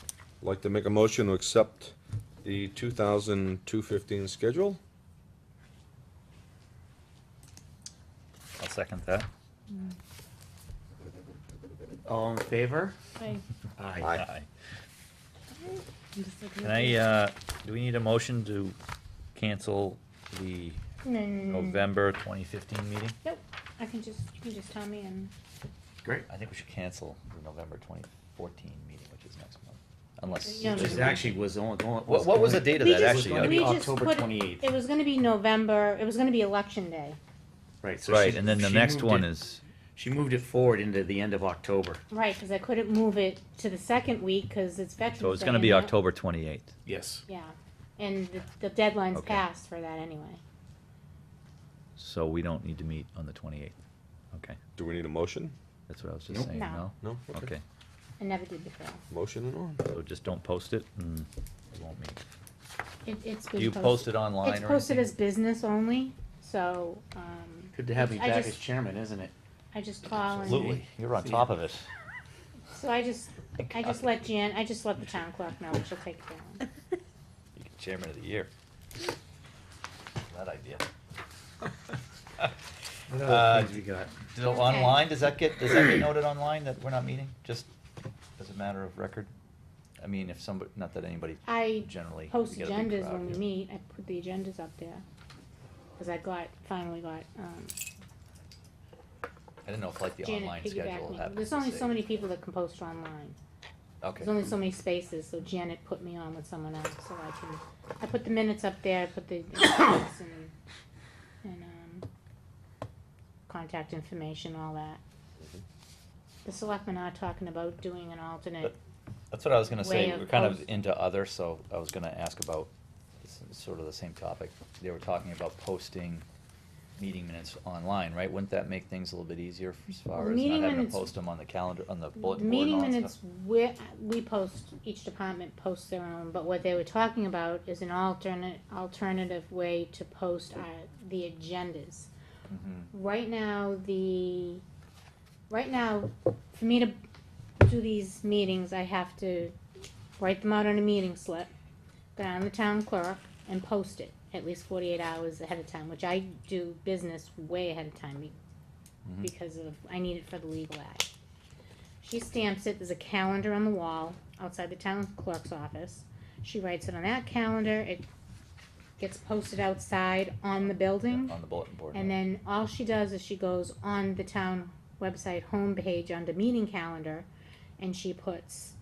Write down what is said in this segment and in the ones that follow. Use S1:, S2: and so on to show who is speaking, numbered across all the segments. S1: I'd like to make a motion to accept the two thousand two fifteen schedule.
S2: I'll second that.
S3: All in favor?
S4: Hi.
S3: Aye.
S1: Aye.
S4: I'm just looking
S2: Can
S4: at
S2: I,
S4: the-
S2: uh, do we need a motion to cancel the
S4: No, no, no, no, no.
S2: November twenty fifteen meeting?
S4: Nope, I can just, you can just tell me and,
S3: Great.
S2: I think we should cancel the November twenty fourteen meeting, which is next month, unless.
S4: No, no,
S3: Which
S4: no.
S3: actually was only going.
S2: What- what was the
S3: going-
S2: date of
S4: We
S2: that,
S4: just-
S2: actually? uh,
S3: was gonna
S4: we
S3: be
S4: just
S3: October
S4: put-
S3: twenty eighth.
S4: it was gonna be November, it was gonna be election day,
S3: Right. So
S2: Right,
S3: she-
S2: and then the
S3: she
S2: next
S3: moved
S2: one
S3: it-
S2: is,
S3: She moved it forward into the end of October.
S4: right, cause I couldn't move it to the second week, cause it's Veterans Day.
S2: so it's gonna be
S4: and that-
S2: October twenty eighth.
S3: Yes.
S4: Yeah, and the, the deadline's
S2: Okay.
S4: passed for that anyway.
S2: So we don't need to meet on the twenty-eighth. Okay,
S1: Do we need a motion?
S2: that's what I was just
S3: Nope.
S2: saying, no?
S4: No.
S1: No?
S2: Okay,
S4: I never did before.
S1: Motion and on.
S2: so just don't post it and it won't meet.
S4: It, it's
S2: Do
S4: been
S2: you post it online or
S4: It's posted as
S2: anything?
S4: business only, so, um.
S3: Good to have you
S4: I
S3: back as
S4: just-
S3: chairman, isn't it?
S4: I just call and,
S2: Absolutely, you're on top of it.
S4: so I just, I just let Jan, I just let the town clerk know, and she'll take it down.
S2: You're chairman of the year. That idea.
S3: What
S2: Uh,
S3: other things we got?
S2: Do, online, does that get, does that get noted online that we're not meeting, just as a matter of record? I mean, if somebody, not that anybody
S4: I
S2: generally.
S4: post
S2: we get a big
S4: agendas
S2: crowd
S4: when we
S2: here.
S4: meet, I put the agendas up there, cause I got, finally got, um,
S2: I didn't know if like the
S4: Janet
S2: online
S4: piggybacked
S2: schedule
S4: me.
S2: happens.
S4: There's
S2: to
S4: only
S2: say-
S4: so many people that can post online,
S2: Okay,
S4: there's only so many spaces, so Janet put me on with someone else, so I can, I put the minutes up there, I put the, agendas and, and, um, contact information, all that.
S2: Mm-hmm.
S4: The selectmen are talking about doing an alternate
S2: that's what I was gonna say,
S4: way of
S2: we're kind of
S4: post-
S2: into other, so I was gonna ask about, this is sort of the same topic. They were talking about posting meeting minutes online, right? Wouldn't that make things a little bit easier as
S4: Well,
S2: far as not
S4: meeting
S2: having to
S4: minutes-
S2: post them on the calendar, on the
S4: The
S2: bulletin board and
S4: meeting
S2: all that
S4: minutes,
S2: stuff?
S4: we, we post, each department posts their own, but what they were talking about is an alternate, alternative way to post our, the agendas.
S2: Mhm.
S4: Right now, the, right now, for me to do these meetings, I have to write them out on a meeting slip, go down to the town clerk and post it at least forty-eight hours ahead of time, which I do business way ahead of time be-
S2: Mhm.
S4: because of, I need it for the legal ad. She stamps it, there's a calendar on the wall outside the town clerk's office. She writes it on that calendar, it gets posted outside on the building.
S2: On the bulletin board.
S4: And
S2: yeah.
S4: then all she does is she goes on the town website homepage under meeting calendar and she puts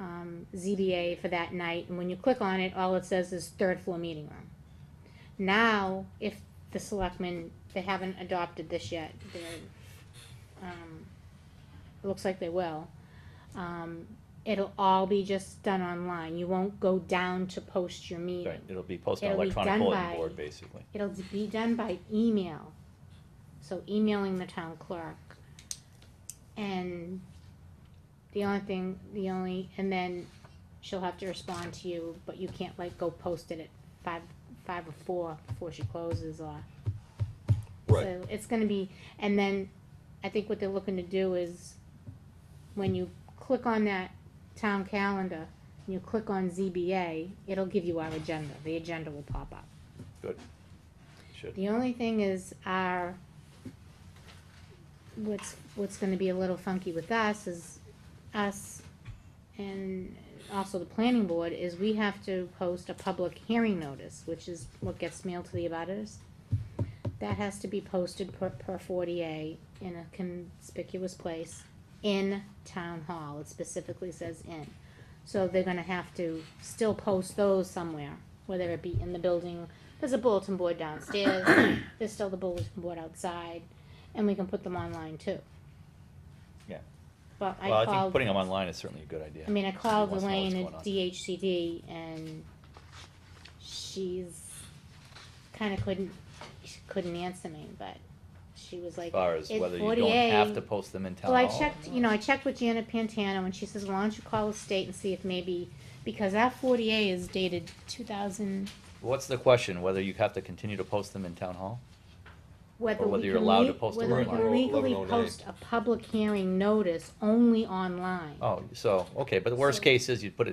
S4: um, ZBA for that night. And when you click on it, all it says is third floor meeting room. Now, if the selectmen, they haven't adopted this yet, they're, um, it looks like they will. Um, it'll all be just done online. You won't go down to post your meeting.
S2: Right, it'll be posted on
S4: It'll be
S2: electronic
S4: done
S2: bulletin
S4: by-
S2: board, basically.
S4: It'll be done by email. So emailing the town clerk. And the only thing, the only, and then she'll have to respond to you, but you can't like go post it at five, five or four before she closes or.
S1: Right,
S4: So it's gonna be, and then I think what they're looking to do is when you click on that town calendar, and you click on ZBA, it'll give you our agenda. The agenda will pop up.
S2: Should.
S4: The only thing is our, what's, what's gonna be a little funky with us is us and also the planning board is we have to post a public hearing notice, which is what gets mailed to the abutters. That has to be posted per, per forty A in a conspicuous place in town hall. It specifically says in. So they're gonna have to still post those somewhere, whether it be in the building, there's a bulletin board downstairs, there's still the bulletin board outside, and we can put them online too.
S2: Yeah.
S4: But I
S2: Well, I
S4: called.
S2: think putting them online is certainly a good idea.
S4: I mean, I called
S2: Wants to know what's
S4: Elaine
S2: going on.
S4: at DHCD and she's kinda couldn't, she couldn't answer me, but she was
S2: As
S4: like,
S2: far as
S4: it's
S2: whether you don't have
S4: 48.
S2: to post them in town
S4: well, I
S2: hall. or
S4: checked, you
S2: not.
S4: know, I checked with Janet Pantano and she says, why don't you call the state and see if maybe, because our forty A is dated two thousand,
S2: What's the question, whether you have to continue to post them in town hall?
S4: whether
S2: whether
S4: we
S2: you're
S4: can
S2: allowed to
S4: le-
S2: post
S4: whether we
S2: online.
S4: can legally
S1: 1109.
S4: post a public hearing notice only online.
S2: Oh, so, okay, but the worst
S4: So-
S2: case is you'd put it.